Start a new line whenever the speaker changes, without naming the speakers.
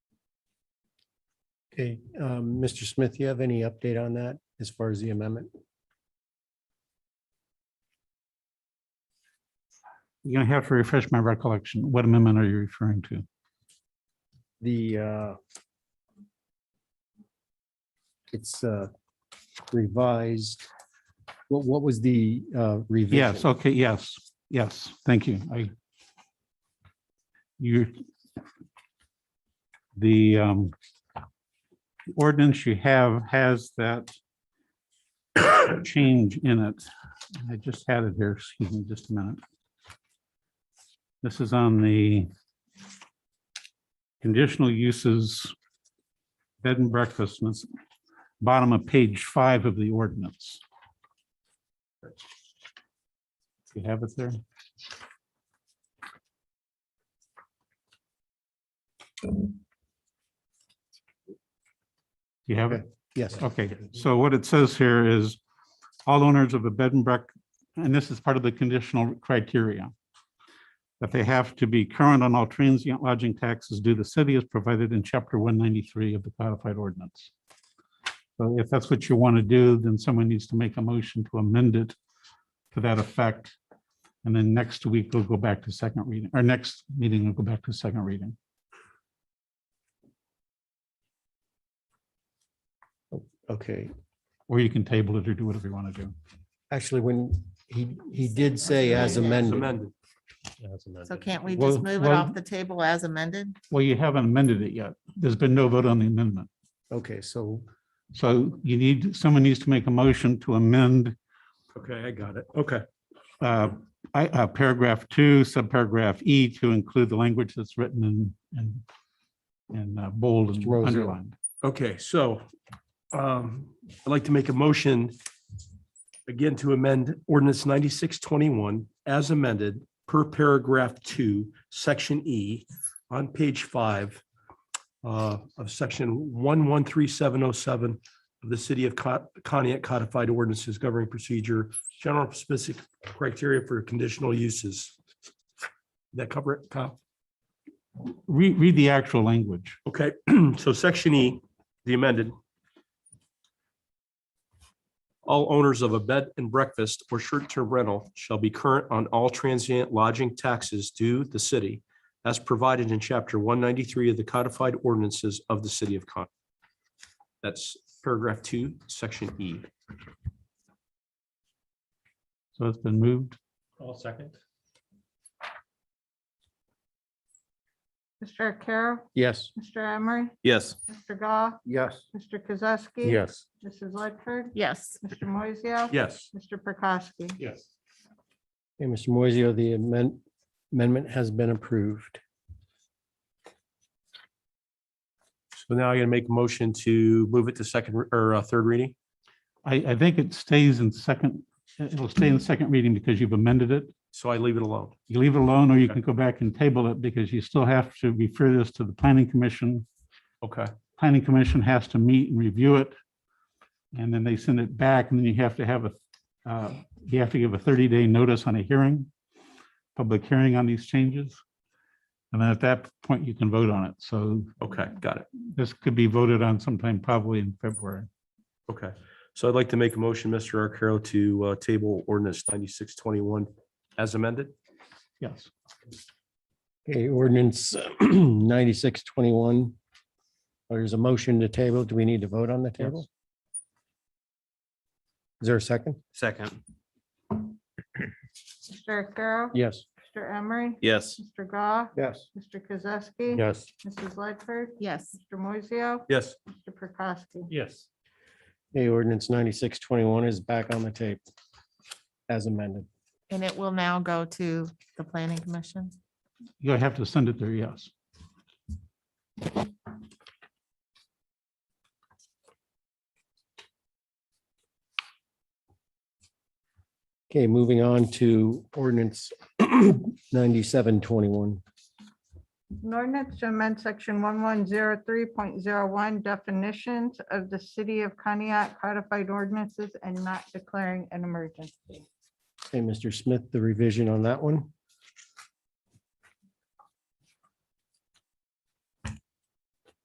Okay, um, Mr. Smith, you have any update on that as far as the amendment?
You're gonna have to refresh my recollection. What amendment are you referring to?
The uh, it's uh, revised. What, what was the uh, revision?
Yes, okay, yes, yes, thank you. I. You're. The um. Ordinance you have has that. Change in it. I just had it here, excuse me, just a minute. This is on the. Conditional uses. Bed and breakfast, and it's bottom of page five of the ordinance. You have it there? You have it?
Yes,
Okay, so what it says here is all owners of a bed and break, and this is part of the conditional criteria. That they have to be current on all transient lodging taxes due the city as provided in chapter one ninety-three of the codified ordinance. So if that's what you want to do, then someone needs to make a motion to amend it to that effect. And then next week we'll go back to second reading, or next meeting we'll go back to second reading.
okay.
Or you can table it or do whatever you want to do.
Actually, when he, he did say as amended.
Amended.
So can't we
Well-
just move it
well-
off the table as amended?
Well, you haven't amended it yet. There's been no vote on the amendment.
Okay, so
So you need, someone needs to make a motion to amend
Okay, I got it. Okay.
uh, I- uh, paragraph two, subparagraph E to include the language that's written in, in in uh, bold
Mr. Rosio.
and underlined.
Okay, so um, I'd like to make a motion again to amend ordinance ninety-six twenty-one as amended per paragraph two, section E on page five uh, of section one one three seven oh seven of the city of Con- Pontiac codified ordinances governing procedure, general specific criteria for conditional uses. That cover it, Kyle?
Read, read the actual language.
Okay, so section E, the amended. All owners of a bed and breakfast or short-term rental shall be current on all transient lodging taxes due the city as provided in chapter one ninety-three of the codified ordinances of the city of Con. That's paragraph two, section E.
So it's been moved.
All second.
Mr. Carroll,
yes.
Mr. Emery,
Yes.
Mr. Goff,
Yes.
Mr. Kozowski.
Yes.
Mrs. Ledford,
Yes.
Mr. Moiseo.
Yes.
Mr. Prokowski.
Yes.
Hey, Mr. Moiseo, the amend- amendment has been approved.
So now I'm gonna make a motion to move it to second re- or uh, third reading.
I, I think it stays in second, it'll stay in second reading because you've amended it.
So I leave it alone.
You leave it alone or you
Okay.
can go back and table it because you still have to refer this to the planning commission
Okay.
planning commission has to meet and review it. And then they send it back and then you have to have a, uh, you have to give a thirty day notice on a hearing, public hearing on these changes. And then at that point, you can vote on it. So
Okay, got it.
this could be voted on sometime probably in February.
Okay, so I'd like to make a motion, Mr. Arcaro, to uh, table ordinance ninety-six twenty-one as amended.
Yes.
Okay, ordinance ninety-six twenty-one. Oh, There's a motion to table. Do we need to vote on the table? Is there a second?
Second.
Mr. Carroll.
Yes.
Mr. Emery.
Yes.
Mr. Goff,
Yes.
Mr. Kozowski.
Yes.
Mrs. Ledford,
Yes.
Mr. Moiseo,
Yes.
Mr. Prokowski.
Yes.
Okay, ordinance ninety-six twenty-one is back on the table as amended.
And it will now go to the planning commission?
You'll have to send it there. Yes.
Okay, moving on to ordinance ninety-seven twenty-one.
An ordinance to amend section one one zero three point zero one definitions of the city of Conneaut codified ordinances and not declaring an emergency.
Hey, Mr. Smith, the revision on that one?